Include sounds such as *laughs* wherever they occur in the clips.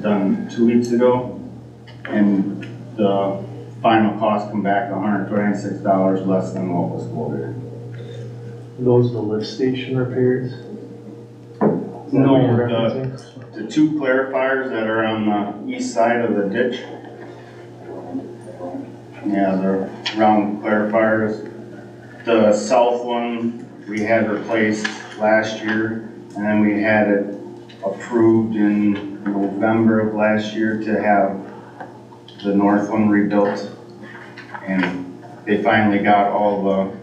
done two weeks ago. And the final cost come back hundred twenty-six dollars less than what was quoted. Those the lift station repairs? Is that No, what you're the, referencing? the two clarifiers that are on the east side of the ditch. Yeah, they're round clarifiers. The south one, we had replaced last year, and then we had it approved in November of last year to have the north one rebuilt. And they finally got all the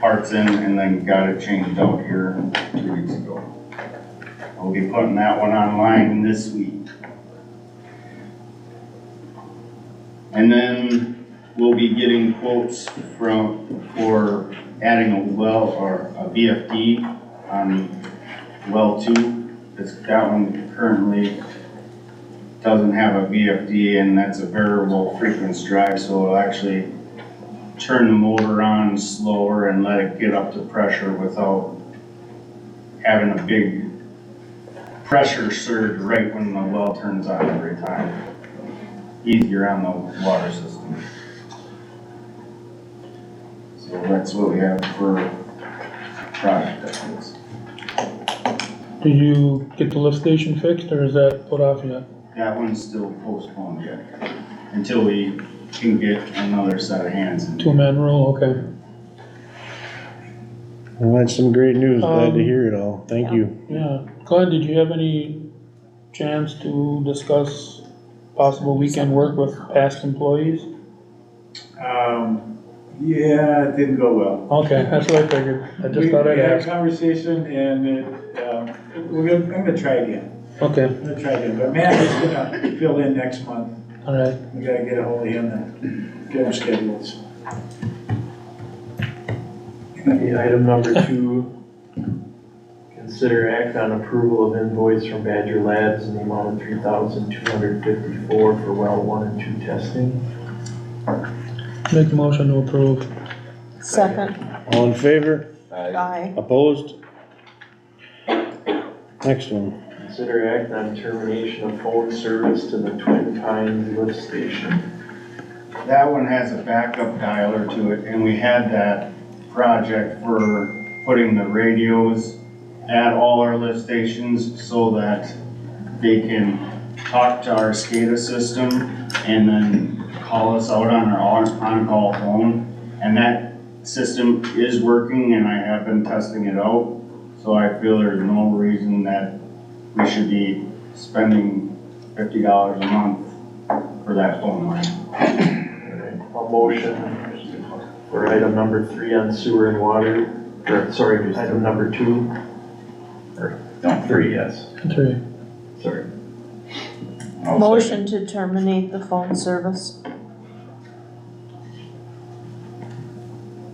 parts in and then got it changed out here two weeks ago. I'll be putting that one online this week. And then we'll be getting quotes from, for adding a well or a VFD on well two. It's, that one currently doesn't have a VFD and that's a variable frequency drive, so it'll actually turn the motor on slower and let it get up to pressure without having a big pressure surge right when the well turns on every time. Easier on the water system. So that's what we have for project updates. Did you get the lift station fixed or is that put off yet? That one's still postponed yet, until we can get another set of hands. in. Two-man rule, okay. Well, that's some great news. Glad Um, to hear it all. Thank you. Yeah. Glenn, did you have any chance to discuss possible weekend work with past employees? Um, yeah, it didn't go well. Okay, that's what I figured. I just We- thought I'd We had a ask. conversation and it, um, we're gonna, I'm gonna try again, Okay, I'm gonna try again, but Matt is gonna fill in next month. all right. We gotta get ahold of him and get him scheduled. Okay, Item number two, consider act on approval of invoice from Badger Labs in the amount of three thousand two hundred fifty-four for well one and two testing. Make a motion to approve. Second, All in favor? aye. Opposed? Next one. Consider act on termination of phone service to the Twin Pines lift station. That one has a backup dialer to it, and we had that project for putting the radios at all our lift stations so that they can talk to our SCADA system and then call us out on our on- on-call phone. And that system is working and I have been testing it out, so I feel there's no reason that we should be spending fifty dollars a month for that phone line. A motion for item number three on sewer and water, or sorry, item number two. Or, no, three, yes, Three. sorry. Motion to terminate the phone service.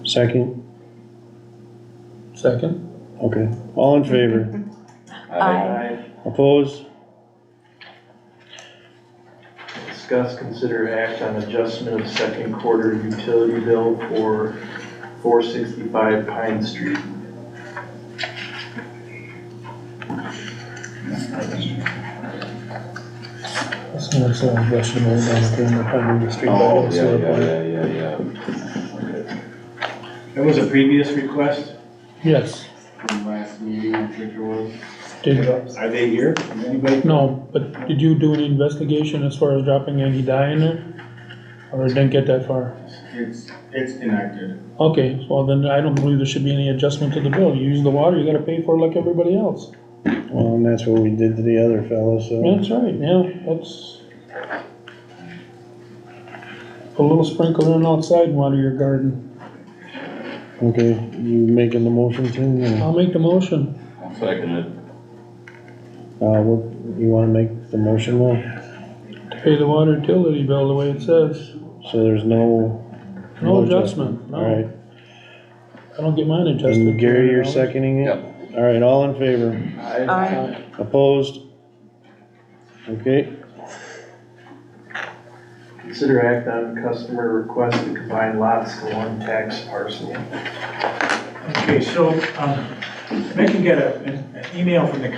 Second? Second. Okay. All *laughs* in favor? Aye. Opposed? Discuss, consider act on adjustment of second quarter utility bill for four sixty-five Pine Street. That's the next one, question was on the Pine River Street. Oh, yeah, yeah, yeah, yeah, yeah. That was a previous request. Yes, from last meeting, I think it was. did, Are they here? Anybody? no, but did you do any investigation as far as dropping any dye in there? Or didn't get that far? It's, it's connected. Okay, well then I don't believe there should be any adjustment to the bill. You use the water, you gotta pay for it like everybody else. Well, and that's what we did to the other fellow, so. That's right, yeah, that's. Put A little sprinkler in outside and water your garden. Okay, you making the motion, Tim? or- I'll make the motion. I'll second it. Uh, what, you wanna make the motion now? to Pay the water utility bill the way it says. So there's no. No adjustment, All right. no. I don't get mine adjusted. And Gary, you're seconding it? All right, all in favor? Aye. Aye. Opposed? Okay. Consider act on customer request to combine lots to one tax parcel. Okay, so, um, Megan got a, an an email from the